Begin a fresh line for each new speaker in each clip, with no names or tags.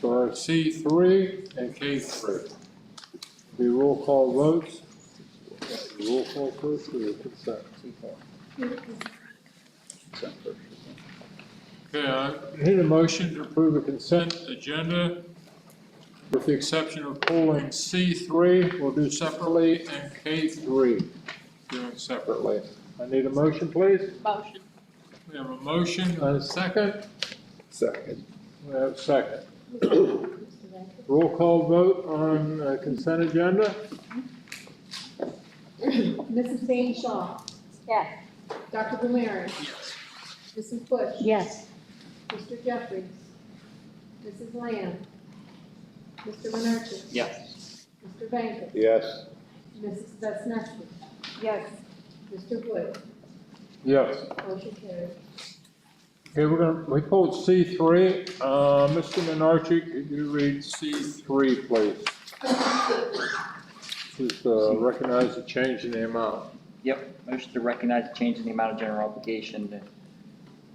for C three and K three. The roll call votes. Roll call first or consent? Okay, I need a motion to approve the consent agenda with the exception of pulling C three, we'll do separately, and K three, doing separately. I need a motion, please.
Motion.
We have a motion and a second.
Second.
We have a second. Roll call vote on uh, consent agenda?
Mrs. Zane Shaw.
Yes.
Dr. Blumeri. Mrs. Bush.
Yes.
Mr. Jeffries. Mrs. Lamb. Mr. Menucha.
Yes.
Mr. Vankis.
Yes.
Mrs. Vaснецki.
Yes.
Mr. Wood.
Yes.
Motion carried.
Okay, we're gonna, we pulled C three. Uh, Mr. Menarche, could you read C three, please? Just, uh, recognize the change in the amount.
Yep, motion to recognize the change in the amount of general obligation to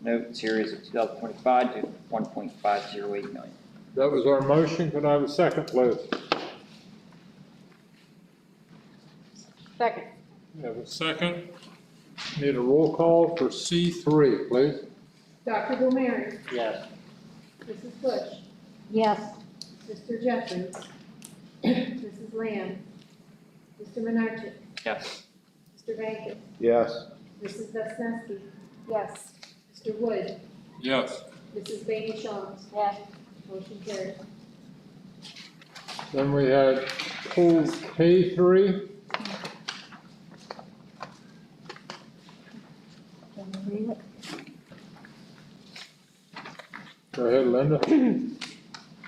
note series of 2025 to 1.508 million.
That was our motion. Could I have a second, please?
Second.
We have a second. Need a roll call for C three, please.
Dr. Blumeri.
Yes.
Mrs. Bush.
Yes.
Mr. Jeffries. Mrs. Lamb. Mr. Menucha.
Yes.
Mr. Vankis.
Yes.
Mrs. Vaснецki.
Yes.
Mr. Wood.
Yes.
Mrs. Zane Shaw.
Yes.
Motion carried.
Then we had pulled K three. Go ahead, Linda.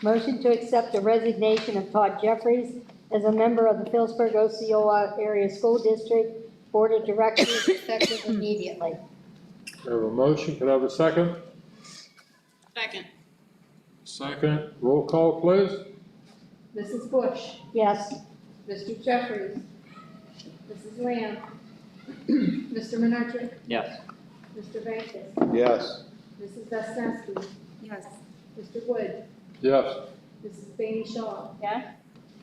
Motion to accept the resignation of Todd Jeffries as a member of the Phillipsburg Osceola Area School District Board of Directors effective immediately.
We have a motion. Could I have a second?
Second.
Second. Roll call, please.
Mrs. Bush.
Yes,
Mr. Jeffries. Mrs. Lamb. Mr. Menucha.
Yes.
Mr. Vankis.
Yes.
Mrs. Vaснецki.
Yes.
Mr. Wood.
Yes.
Mrs. Zane Shaw.
Yes.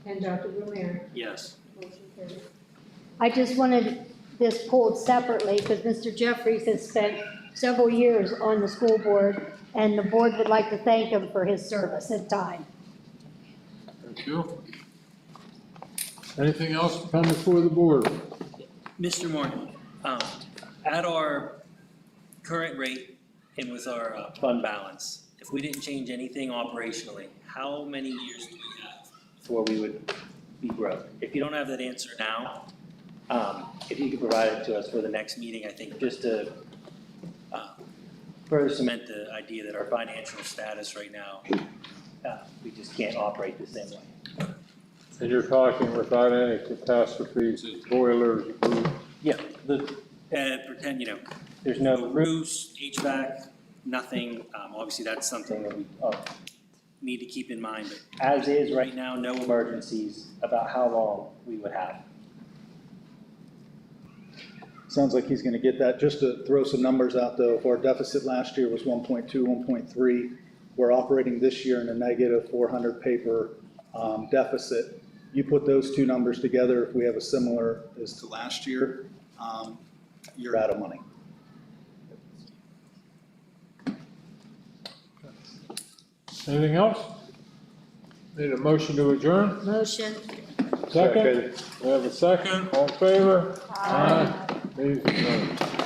And Dr. Blumeri.
Yes.
Motion carried.
I just wanted this pulled separately because Mr. Jeffries has spent several years on the school board, and the board would like to thank him for his service and time.
Thank you. Anything else to come before the board?
Mr. Morgan, um, at our current rate and with our uh, fund balance, if we didn't change anything operationally, how many years do we have before we would be broke? If you don't have that answer now, um, if you could provide it to us for the next meeting, I think, just to uh, further cement the idea that our financial status right now, uh, we just can't operate the same way.
And you're talking without any catastrophes, it's boilers, roof.
Yeah, the, uh, pretend, you know, there's no roofs, HVAC, nothing, um, obviously that's something that we, uh, need to keep in mind, but as is right now, no emergencies about how long we would have.
Sounds like he's gonna get that. Just to throw some numbers out though, if our deficit last year was 1.2, 1.3, we're operating this year in a negative 400 paper um, deficit. You put those two numbers together, if we have a similar as to last year, um, you're out of money.
Anything else? Need a motion to adjourn?
Motion.
Second? We have a second, all in favor? Aye. Meeting's adjourned.